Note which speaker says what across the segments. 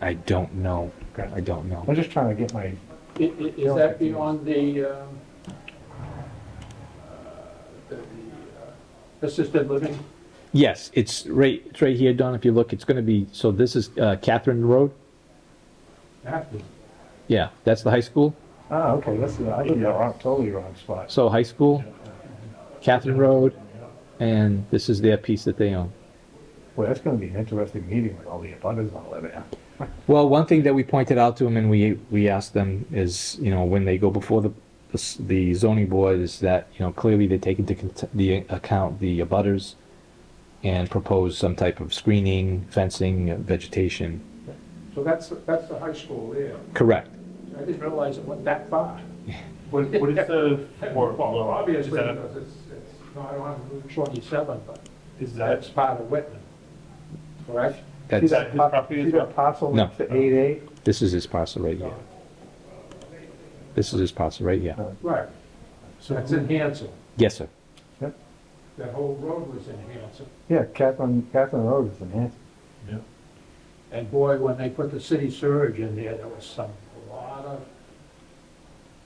Speaker 1: I don't know.
Speaker 2: Okay.
Speaker 1: I don't know.
Speaker 2: I'm just trying to get my,
Speaker 3: I- i- Is that beyond the, um, uh, the uh, assisted living?
Speaker 1: Yes, it's right, it's right here, Don, if you look, it's gonna be, so this is uh, Catherine Road? Yeah, that's the high school?
Speaker 2: ah, okay, this is, I live in the wrong, totally wrong spot.
Speaker 1: So high school, Catherine Road, and this is their piece that they own.
Speaker 2: Boy, that's gonna be an interesting meeting with all the abutters all over there.
Speaker 1: Well, one thing that we pointed out to them and we, we asked them is, you know, when they go before the, the s- the zoning board is that, you know, clearly they take into cont- the account the abutters and propose some type of screening, fencing, uh, vegetation.
Speaker 3: So that's, that's the high school there.
Speaker 1: Correct.
Speaker 3: I didn't realize it went that far.
Speaker 4: What, what is the, or,
Speaker 3: Well,
Speaker 4: well, is
Speaker 3: obviously,
Speaker 4: that,
Speaker 3: because it's, it's not on Route 27, but
Speaker 4: is that,
Speaker 3: that's part of Whitman, correct?
Speaker 2: See
Speaker 1: That's,
Speaker 4: that his
Speaker 2: par-
Speaker 4: property as
Speaker 2: See
Speaker 4: well?
Speaker 2: that parcel
Speaker 1: No.
Speaker 2: next to eight A?
Speaker 1: this is his parcel right here. This is his parcel right here.
Speaker 3: Right. So it's in Hanson.
Speaker 1: Yes, sir.
Speaker 3: That whole road was in Hanson.
Speaker 2: Yeah, Catherine, Catherine Road is in Hanson.
Speaker 4: Yeah.
Speaker 3: And boy, when they put the city surge in there, there was some, a lot of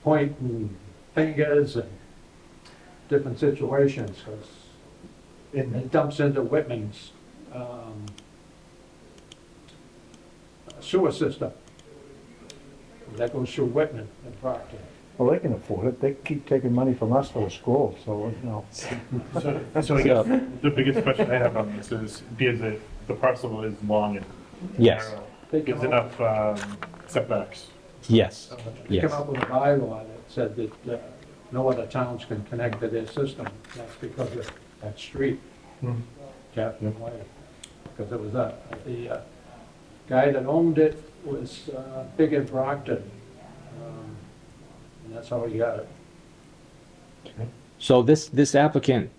Speaker 3: point and fingers and different situations, because it dumps into Whitman's um, sewer system. That goes through Whitman and Proctor.
Speaker 2: Well, they can afford it, they keep taking money from us for the school, so, you know.
Speaker 4: so, so I guess the biggest question I have on this is, because the, the parcel is long and
Speaker 1: Yes,
Speaker 4: narrow,
Speaker 3: They come
Speaker 4: is
Speaker 3: up-
Speaker 4: enough, um, setbacks.
Speaker 1: yes,
Speaker 3: They
Speaker 1: yes.
Speaker 3: come up with a bylaw that said that uh, no other towns can connect to their system. That's because of that street. Captain Way, because it was a, the uh, guy that owned it was uh, big in Brockton. um, And that's how he got it.
Speaker 1: So this, this applicant,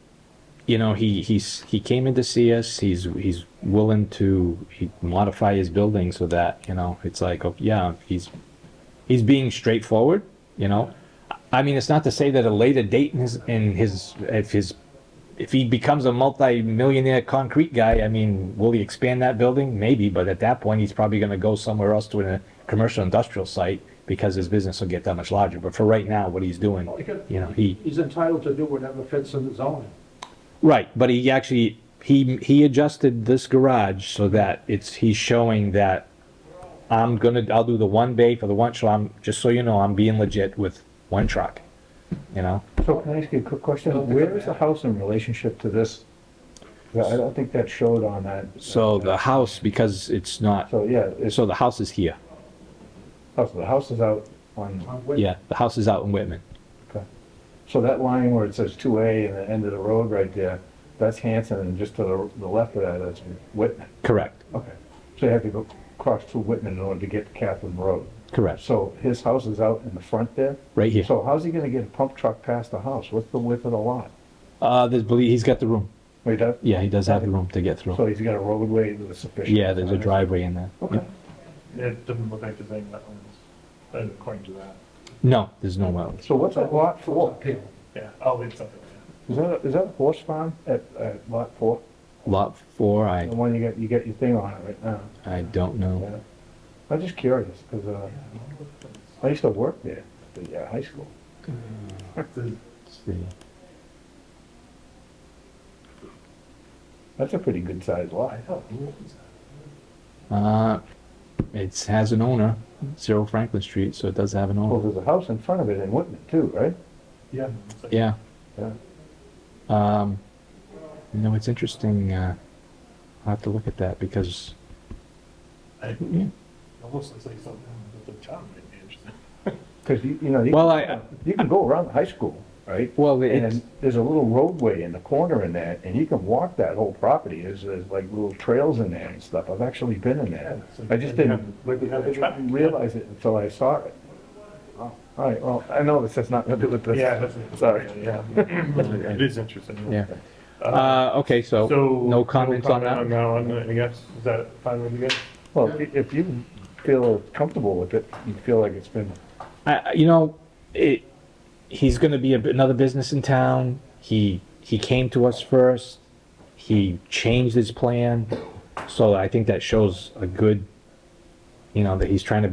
Speaker 1: you know, he, he's, he came in to see us, he's, he's willing to he- modify his building so that, you know, it's like, oh, yeah, he's, he's being straightforward, you know? I mean, it's not to say that a later date in his, in his, if his, if he becomes a multi-millionaire concrete guy, I mean, will he expand that building? Maybe, but at that point, he's probably gonna go somewhere else to a commercial industrial site because his business will get that much larger. But for right now, what he's doing, you know, he.
Speaker 3: He's entitled to do whatever fits in his zoning.
Speaker 1: Right, but he actually, he, he adjusted this garage so that it's, he's showing that I'm gonna, I'll do the one bay for the one, so I'm, just so you know, I'm being legit with one truck, you know?
Speaker 2: So can I ask you a quick
Speaker 3: Don't
Speaker 2: question?
Speaker 3: think
Speaker 2: Where
Speaker 3: of
Speaker 2: is the
Speaker 3: that.
Speaker 2: house in relationship to this? Yeah, I don't think that showed on that.
Speaker 1: So the house, because it's not,
Speaker 2: So, yeah, it's,
Speaker 1: so the house is here,
Speaker 2: oh, so the house is out on,
Speaker 3: on Whit-
Speaker 1: yeah, the house is out in Whitman.
Speaker 2: okay. So that line where it says two A and the end of the road right there, that's Hanson, and just to the, the left of that, that's Whitman.
Speaker 1: Correct,
Speaker 2: Okay. So you have to go cross through Whitman in order to get to Catherine Road.
Speaker 1: correct,
Speaker 2: So his house is out in the front there?
Speaker 1: right here.
Speaker 2: So how's he gonna get a pump truck past the house? What's the width of the lot?
Speaker 1: Uh, there's, believe, he's got the room,
Speaker 2: Wait, that,
Speaker 1: yeah, he does have the room to get
Speaker 2: so
Speaker 1: through.
Speaker 2: he's got a roadway that's sufficient?
Speaker 1: Yeah, there's a driveway in there.
Speaker 2: Okay.
Speaker 4: It doesn't look like there's any wetlands, uh, according to that.
Speaker 1: No, there's no wells.
Speaker 2: So what's that lot
Speaker 3: Full
Speaker 2: for?
Speaker 3: appeal.
Speaker 4: Yeah, I'll leave something there.
Speaker 2: Is that, is that a horse farm at, at lot four?
Speaker 1: Lot four,
Speaker 2: The
Speaker 1: I,
Speaker 2: one you got, you got your thing on it right now?
Speaker 1: I don't know.
Speaker 2: Yeah. I'm just curious, because, uh, I used to work there, at the uh, high school.
Speaker 1: Let's see.
Speaker 2: That's a pretty good sized lot.
Speaker 4: I thought, who owns that?
Speaker 1: Uh, it has an owner, Zero Franklin Street, so it does have an
Speaker 2: Well,
Speaker 1: owner.
Speaker 2: there's a house in front of it in Whitman too, right?
Speaker 4: Yeah. it looks like-
Speaker 1: Yeah.
Speaker 2: Yeah.
Speaker 1: Um, you know, it's interesting. Uh, I'll have to look at that because.
Speaker 4: I-
Speaker 1: Yeah.
Speaker 4: Almost looks like something that the town might be interested in.
Speaker 2: Because you, you know, you,
Speaker 1: Well, I,
Speaker 2: you can go around the high school, right?
Speaker 1: well,
Speaker 2: And
Speaker 1: it,
Speaker 2: there's a little roadway in the corner in that, and you can walk that whole property. There's, there's like little trails in there and stuff. I've actually been in there. I just didn't, I didn't realize it until I saw it. All right, well, I know this has nothing to do with this.
Speaker 4: Oh. Yeah, that's.
Speaker 2: Sorry.
Speaker 4: Yeah. It is interesting.
Speaker 1: yeah. Uh, okay, so,
Speaker 4: So.
Speaker 1: no comments on
Speaker 4: comment
Speaker 1: that?
Speaker 4: On that one, I guess, is that fine with you guys?
Speaker 2: Well, if- if you feel comfortable with it, you feel like it's been,
Speaker 1: I, I- you know, it, he's going to be a, another business in town. He, he came to us first. He changed his plan. So I think that shows a good you know, that he's trying to